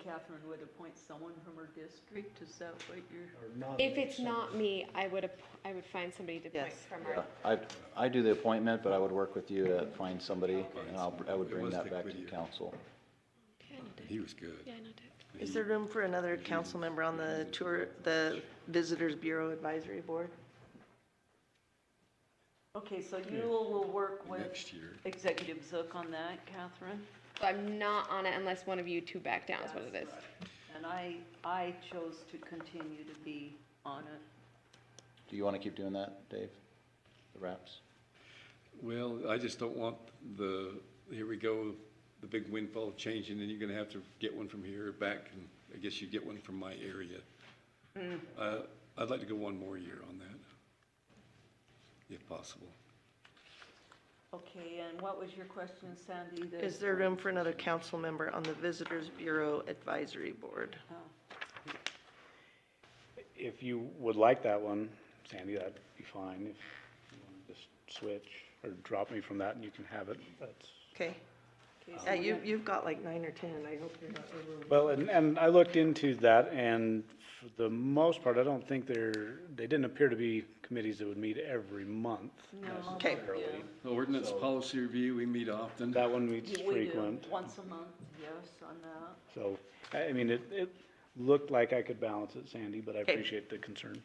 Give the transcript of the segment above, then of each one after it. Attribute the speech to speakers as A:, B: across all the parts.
A: Catherine would appoint someone from her district, is that what you're?
B: or nominate
C: If it's not
B: someone.
C: me, I would, app- I would find somebody to appoint
A: Yes.
C: from
D: Yeah,
C: our,
D: I, I do the appointment, but I would work with you to find somebody, and I'll, I would bring that back to the council.
E: He was good.
C: yeah, not Dick.
F: Is there room for another council member on the tour, the Visitors Bureau Advisory Board?
A: Okay, so you will work with
E: Next year.
A: Executive Zook on that, Catherine?
C: So I'm not on it unless one of you two back down is what it is.
A: And I, I chose to continue to be on it.
D: Do you want to keep doing that, Dave? The wraps?
E: Well, I just don't want the, here we go, the big windfall of change, and then you're gonna have to get one from here back, and I guess you get one from my area. Uh, I'd like to go one more year on that, if possible.
A: Okay, and what was your question, Sandy? The-
F: Is there room for another council member on the Visitors Bureau Advisory Board?
A: Oh.
G: If you would like that one, Sandy, that'd be fine. If you want to just switch or drop me from that and you can have it, that's.
F: Okay.
A: Okay, so
F: Yeah,
A: we're
F: you,
A: not-
F: you've got like nine or 10. I hope you're not over.
G: Well, and, and I looked into that and for the most part, I don't think there, they didn't appear to be committees that would meet every month
A: No.
F: Okay.
G: necessarily.
E: The Ordinance policy review, we meet often.
G: That one meets
A: Yeah, we do,
G: frequent.
A: once a month, yes, on that.
G: So, I, I mean, it, it looked like I could balance it, Sandy, but I appreciate the concern.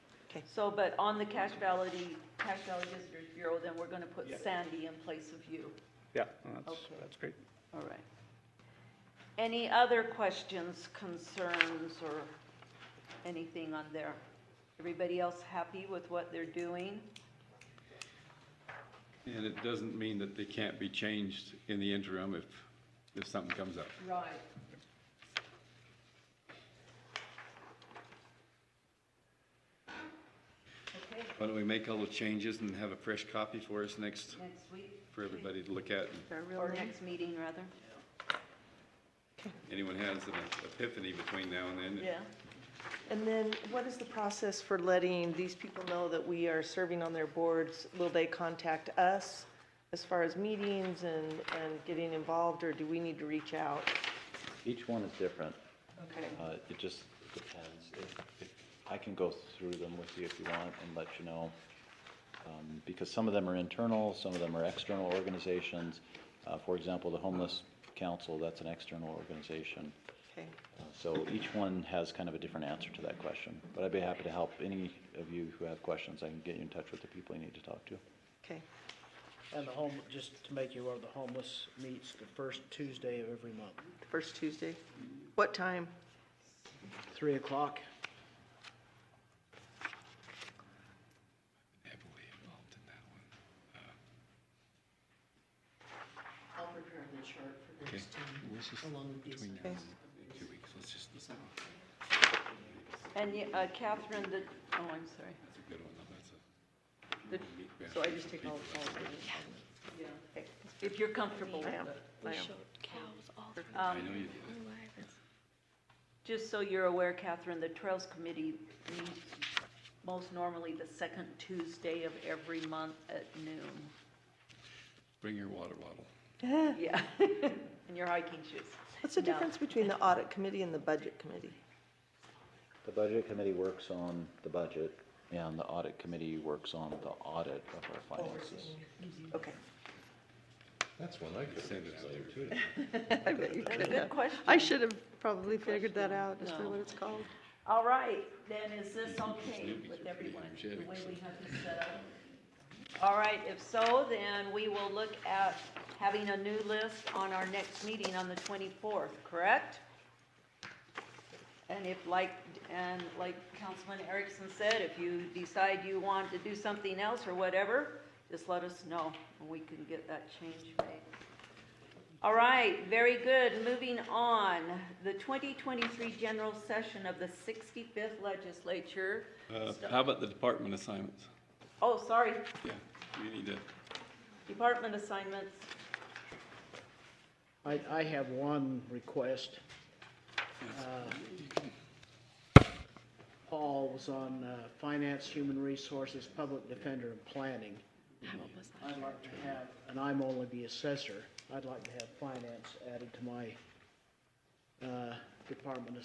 A: So, but on the Cache Valley, Cache Valley Visitors Bureau, then we're gonna put Sandy in place of you.
G: Yeah, that's,
A: Okay.
G: that's great.
A: All right. Any other questions, concerns, or anything on there? Everybody else happy with what they're doing?
E: And it doesn't mean that they can't be changed in the interim if, if something comes up.
A: Right. Okay,
E: Why don't we make all the changes and have a fresh copy for us next,
A: next week,
E: for everybody to look at?
A: or next meeting, rather?
E: Anyone has an epiphany between now and then?
A: Yeah.
F: And then what is the process for letting these people know that we are serving on their boards? Will they contact us as far as meetings and, and getting involved, or do we need to reach out?
D: Each one is different.
F: Okay.
D: Uh, it just depends. If- if- I can go through them with you if you want and let you know. Um, because some of them are internal, some of them are external organizations. Uh, for example, the Homeless Council, that's an external organization.
F: Okay.
D: Uh, So each one has kind of a different answer to that question. But I'd be happy to help any of you who have questions. I can get you in touch with the people you need to talk to.
F: Okay.
B: And the home, just to make you aware, the homeless meets the first Tuesday of every month,
F: First Tuesday. What time?
B: three o'clock.
E: Heavily involved in that one.
H: I'll prepare the chart for
E: Okay,
H: next time.
E: let's just,
H: along with these
E: between now
F: Okay.
E: and in two weeks, let's just, that's a
A: And y- uh, Catherine, the, oh, I'm sorry.
E: good one, though, that's a.
A: The-
E: meat grab
A: So I
E: for
A: just take all, all
E: people.
A: of it? Yeah. okay. If you're comfortable with
F: I am.
A: it.
F: I am.
C: Cows all
E: I know
A: Um,
E: you,
A: Just so you're aware, Catherine, the Trails Committee meets most normally the second Tuesday of every month at noon.
E: bring your water bottle.
A: Yeah, and your hiking shoes.
F: What's the
A: No.
F: difference between the audit committee and the budget committee?
D: The budget committee works on the budget, and the audit committee works on the audit of our finances.
F: Okay.
I: That's one I could have
E: Send it out
I: considered too.
F: I bet you could have.
A: question.
F: I should have probably figured that out, is that
A: No.
F: what it's called?
A: All right, then is this okay
E: Snoopy's
A: with
E: pretty
A: everyone, the
E: energetic,
A: way
E: so.
A: we have this set up? All right, if so, then we will look at having a new list on our next meeting on the twenty-fourth, correct? And if like, and like Councilman Erickson said, if you decide you want to do something else or whatever, just let us know, and we can get that change made. All right, very good. Moving on, the 2023 general session of the 65th legislature.
E: Uh, how about the department assignments?
A: Oh, sorry,
E: Yeah, you need to,
A: department assignments.
B: I, I have one request. Uh, Paul was on uh, Finance, Human Resources, Public Defender, and Planning. I'd like to have, and I'm only the assessor, I'd like to have finance added to my uh, Department of